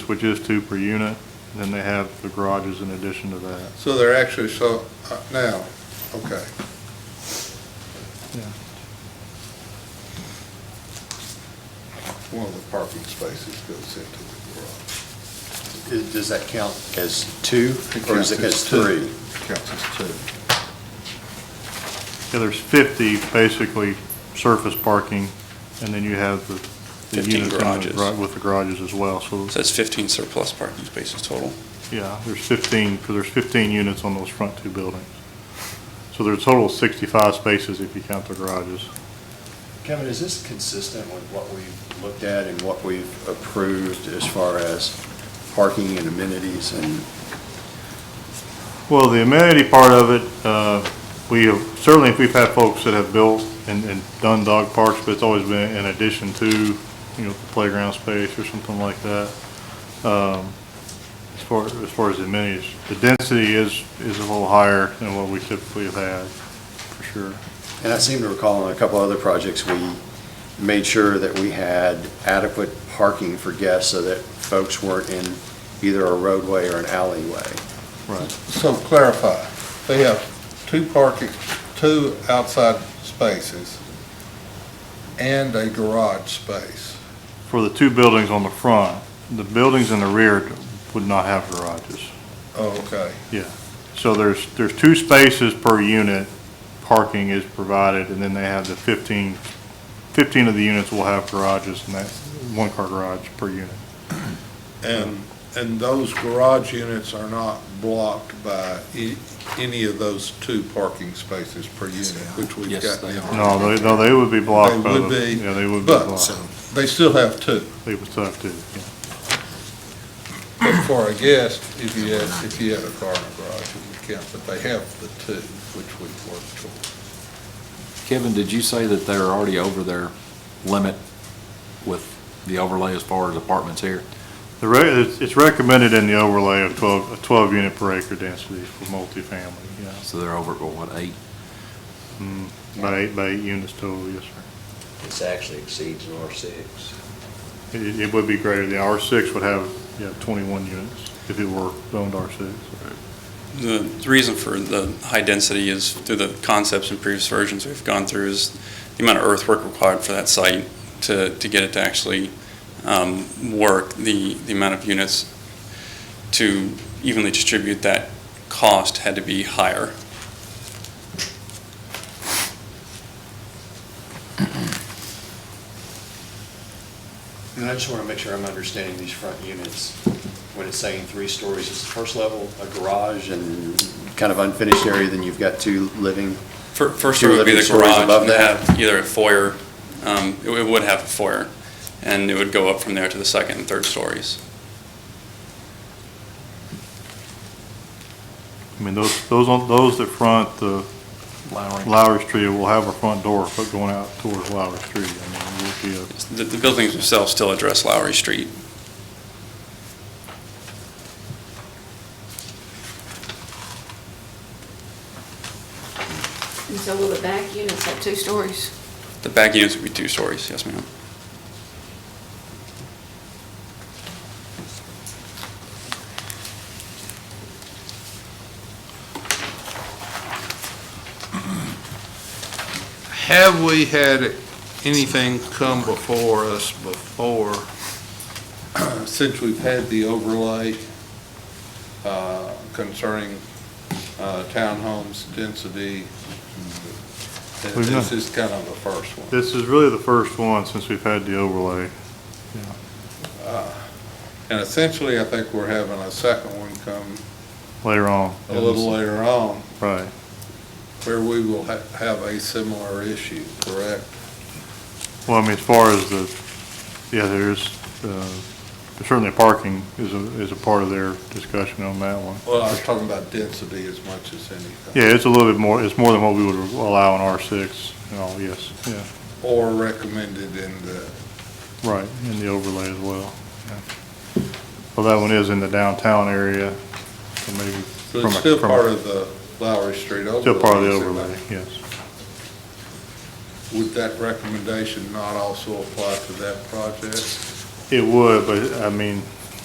which is two per unit, then they have the garages in addition to that. So they're actually, so, uh, now, okay. One of the parking spaces goes into the garage. Is- Does that count as two, It or is counts it as as two. three? Counts as two. Yeah, there's 50 basically surface parking, and then you have the. the 15 units in the garages. gar- With the garages as well, so, So that's 15 surplus parking spaces total. yeah, there's 15, because there's 15 units on those front two buildings. So there's a total of 65 spaces if you count the garages. Kevin, is this consistent with what we've looked at and what we've approved as far as parking and amenities and Well, the amenity part of it, uh, we, have- certainly if we've had folks that have built and, and done dog parks, but it's always been in addition to, you know, playground space or something like that. Um, As far, as far as the amenities, the density is, is a little higher than what we typically have had, for sure. And I seem to recall on a couple other projects, we made sure that we had adequate parking for guests so that folks weren't in either a roadway or an alleyway. Right. So clarify, they have two parking, two outside spaces and a garage space. For the two buildings on the front, the buildings in the rear would not have garages. Oh, okay. So there's, there's two spaces per unit, parking is provided, and then they have the 15, 15 of the units will have garages, and that's one-car garage per unit. And, and those garage units are not blocked by e- any of those two parking spaces per unit, which we've Yes, got they now. No, they, no, they would be blocked They by the. would be, Yeah, they would be but- blocked. They still have two, They would still have to, yeah. but for a guest, if you had, if you had a car in a garage, it would count, but they have the two, which we've worked toward. Kevin, did you say that they're already over their limit with the overlay as far as apartments here? The re, it's- it's recommended in the overlay of 12, a 12 unit per acre density for multifamily, yeah. So they're over, at, what, eight? Mm, By eight, by eight units total, yes, sir. This actually exceeds an R6. It, it would be greater, the R6 would have, yeah, 21 units if it were zoned R6. The the reason for the high density is through the concepts in previous versions we've gone through is the amount of earthwork required for that site to, to get it to actually um, work, the, the amount of units to evenly distribute that cost had to be higher. And I just want to make sure I'm understanding these front units. When it's saying three stories, it's the first level, a garage and kind of unfinished area, then you've got two living. Fir- First Two floor would be living the stories garage, above and they that? have either a foyer, um, it it would have a foyer, and it would go up from there to the second and third stories. I mean, those, those, on those that front the Lowry Street will have a front door for going out towards Lowry Street. I mean, it would be The, the buildings themselves still address Lowry Street. And so will the back units have two stories? The back units would be two stories, yes, ma'am. Have we had anything come before us before, since we've had the overlay uh, concerning uh, townhomes density? Th- We've not- This is kind of the first one. a- This is really the first one since we've had the overlay. And essentially, I think we're having a second one come Later on, a little later on, right. where we will ha- have a similar issue, correct? Well, I mean, as far as the, yeah, there's, uh, certainly parking is a, is a part of their discussion on that one. Well, I was talking about density as much as anything. Yeah, it's a little bit more, it's more than what we would allow in R6, you know, yes, yeah, Or recommended in the right, in the overlay as well. yeah. Well, that one is in the downtown area, so maybe. So from it's a- still from a- part of the Lowry Street overlay? Still part of the is it overlay, not? yes. Would that recommendation not also apply to that project? It would, but I mean,